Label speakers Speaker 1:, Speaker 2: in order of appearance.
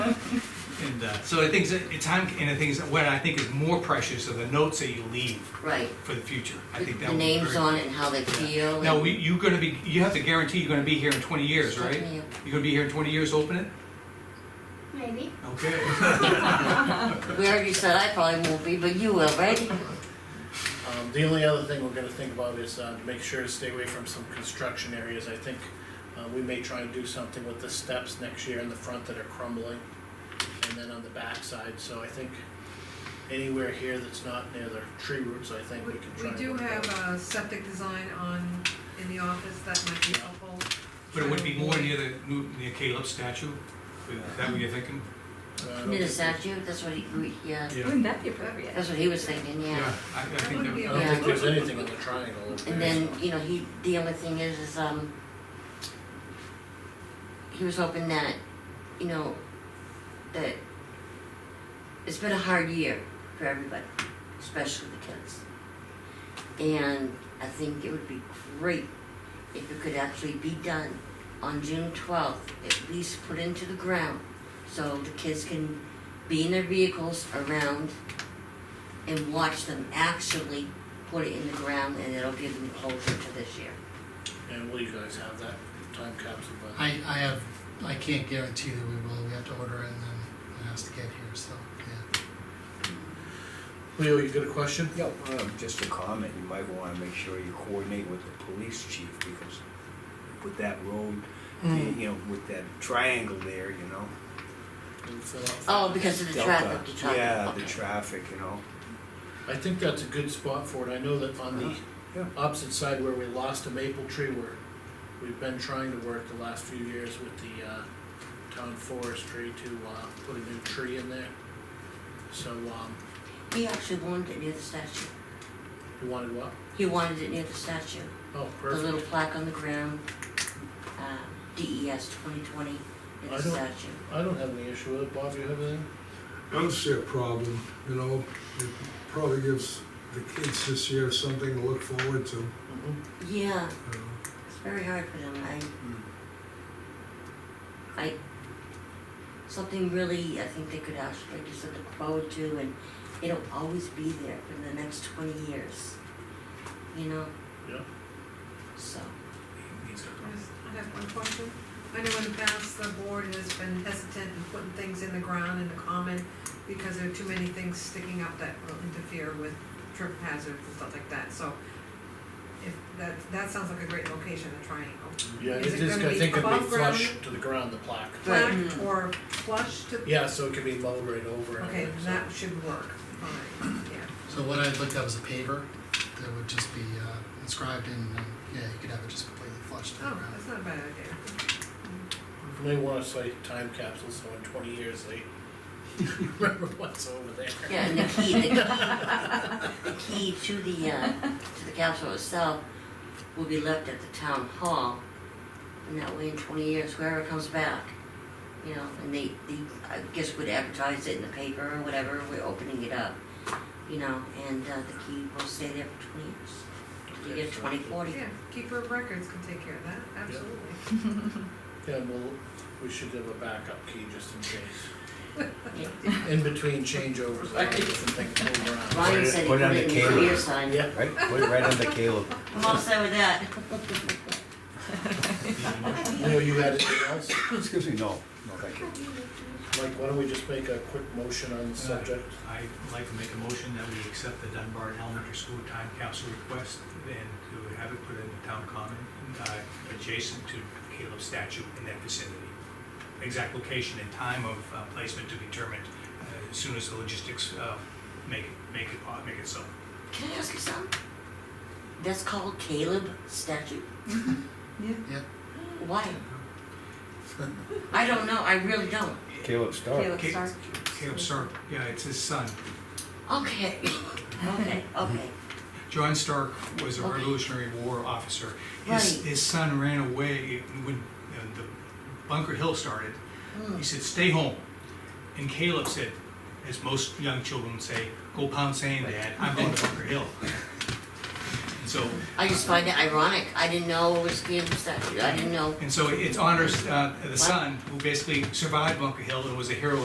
Speaker 1: Yeah, uh, so the things, that- it's time, and the things, that- what I think is more precious are the notes that you leave
Speaker 2: right.
Speaker 1: for the future. I think that
Speaker 2: The
Speaker 1: would be
Speaker 2: names
Speaker 1: very.
Speaker 2: on it and how they feel.
Speaker 1: Now,
Speaker 2: and-
Speaker 1: we, you're gonna be, you have to guarantee you're gonna be here in twenty years, right?
Speaker 2: Certainly.
Speaker 1: You're gonna be here in twenty years, open it?
Speaker 3: Maybe.
Speaker 1: Okay.
Speaker 2: We already said I probably won't be, but you will, right?
Speaker 4: Um, the only other thing we're gonna think about is, uh, to make sure to stay away from some construction areas, I think, uh, we may try and do something with the steps next year in the front that are crumbling, and then on the backside, so I think anywhere here that's not near the tree roots, I think
Speaker 5: We
Speaker 4: we can try
Speaker 5: we
Speaker 4: and.
Speaker 5: do
Speaker 4: work
Speaker 5: have uh,
Speaker 4: out.
Speaker 5: a septic design on, in the office, that might be helpful.
Speaker 1: But it would be more near the, near Caleb's statue, is that what you're thinking?
Speaker 4: Uh, I don't
Speaker 2: Near the
Speaker 4: think-
Speaker 2: statue, that's what he, we- yeah,
Speaker 6: Wouldn't that be appropriate?
Speaker 2: that's what he was thinking,
Speaker 1: Yeah,
Speaker 2: yeah.
Speaker 1: I, I
Speaker 5: That
Speaker 1: think
Speaker 5: would
Speaker 1: that
Speaker 5: be
Speaker 4: I
Speaker 1: would,
Speaker 4: don't
Speaker 2: Yeah.
Speaker 4: think there's anything in the triangle. over
Speaker 2: And
Speaker 4: there,
Speaker 2: then,
Speaker 4: so.
Speaker 2: you know, he, the only thing is, is, um, he was hoping that, you know, that it's been a hard year for everybody, especially the kids. And I think it would be great if it could actually be done on June twelfth, at least put into the ground, so the kids can be in their vehicles around and watch them actually put it in the ground, and it'll give them closure to this year.
Speaker 4: And will you guys have that time capsule by then?
Speaker 7: I, I have, I can't guarantee that we will, we have to order it and then it has to get here, so, yeah.
Speaker 4: Leo, you got a question?
Speaker 8: Yeah, um, just a comment, you might wanna make sure you coordinate with the police chief, because with that road,
Speaker 4: Mm.
Speaker 8: you know, with that triangle there, you know.
Speaker 4: Can you fill out that?
Speaker 2: Oh, because of the
Speaker 8: Delta.
Speaker 2: traffic, the traffic,
Speaker 8: Yeah, the
Speaker 2: okay.
Speaker 8: traffic, you know.
Speaker 4: I think that's a good spot for it, I know that on
Speaker 8: Yeah.
Speaker 4: the opposite side where we lost a maple tree, where we've been trying to work the last few years with the, uh, town forestry to, uh, put a new tree in there. So, um,
Speaker 2: He actually wanted it near the statue.
Speaker 4: you wanted what?
Speaker 2: He wanted it near the statue.
Speaker 4: Oh,
Speaker 2: The little
Speaker 4: perfect,
Speaker 2: plaque on the ground, uh, DES 2020 in
Speaker 4: I
Speaker 2: the
Speaker 4: don't-
Speaker 2: statue.
Speaker 4: I don't have any issue with it, Bob, you have anything?
Speaker 9: I don't see a problem, you know, it probably gives the kids this year something to look forward to, you
Speaker 4: Mm-hmm.
Speaker 2: Yeah,
Speaker 9: know.
Speaker 2: it's very hard for them. I, I, something really I think they could actually just look forward to, and it'll always be there for the next 20 years. You know,
Speaker 4: Yeah,
Speaker 2: so.
Speaker 5: I have one question. I know in the past, the board has been hesitant in putting things in the ground in the common because there are too many things sticking up that will interfere with trip hazards and stuff like that, so if, that, that sounds like a great location, the triangle.
Speaker 4: yeah, it
Speaker 5: Is it
Speaker 4: is,
Speaker 5: gonna
Speaker 4: I
Speaker 5: be
Speaker 4: think it'd be
Speaker 5: above ground?
Speaker 4: flush to the ground, the plaque.
Speaker 2: Right.
Speaker 5: Flat or flush to,
Speaker 4: Yeah, so it could be lowered right over and
Speaker 5: okay,
Speaker 4: everything, so.
Speaker 5: that should work, fine, yeah.
Speaker 7: So what I'd look at was a paver that would just be uh, inscribed in, and, yeah, you could have it just completely flushed to the
Speaker 5: Oh,
Speaker 7: ground.
Speaker 5: that's not a bad idea.
Speaker 4: You may wanna say time capsule, so in twenty years they remember what's over there.
Speaker 2: Yeah, and the key, the key, the key to the, uh, to the capsule itself will be left at the town hall. And that way in twenty years, whoever comes back, you know, and they, they, I guess would advertise it in the paper or whatever, we're opening it up. You know, and, uh, the key will stay there for twenty years, till you get twenty forty.
Speaker 5: Yeah, keeper of records can take care of that, absolutely.
Speaker 4: Yeah, well, we should have a backup key just in case.
Speaker 2: Yeah.
Speaker 4: In between changeovers, I think things move around.
Speaker 2: Ryan said he
Speaker 8: Put
Speaker 2: put
Speaker 8: it on
Speaker 2: it in
Speaker 8: the
Speaker 2: the
Speaker 8: cable.
Speaker 2: career sign.
Speaker 4: Yeah.
Speaker 8: Right, put it right under Caleb.
Speaker 2: I'm all set with that.
Speaker 4: Leo, you had anything else?
Speaker 8: Excuse me, no, no, thank you.
Speaker 4: Mike, why don't we just make a quick motion on the subject?
Speaker 1: I'd like to make a motion that we accept the Dunbar Elementary School time capsule request and to have it put in the town common, uh, adjacent to Caleb's statue in that vicinity. Exact location and time of uh, placement to be determined uh, as soon as the logistics uh, make, make it, po- make it so.
Speaker 2: Can I ask you something? That's called Caleb statue?
Speaker 7: Yep.
Speaker 2: Why? I don't know, I really don't.
Speaker 8: Caleb Stark.
Speaker 2: Caleb Stark.
Speaker 1: Caleb, sir, yeah, it's his son.
Speaker 2: Okay, okay, okay.
Speaker 1: John Stark was a
Speaker 2: Okay.
Speaker 1: Revolutionary War officer. His,
Speaker 2: Right.
Speaker 1: his son ran away when uh, the Bunker Hill started.
Speaker 2: Hmm.
Speaker 1: He said, "Stay home." And Caleb said, as most young children say, "Go pound sand, Dad. I'm going to Bunker Hill." And so,
Speaker 2: I just find it ironic. I didn't know it was Caleb statue. I didn't know
Speaker 1: and so it honors uh, the son who basically survived Bunker Hill and was a hero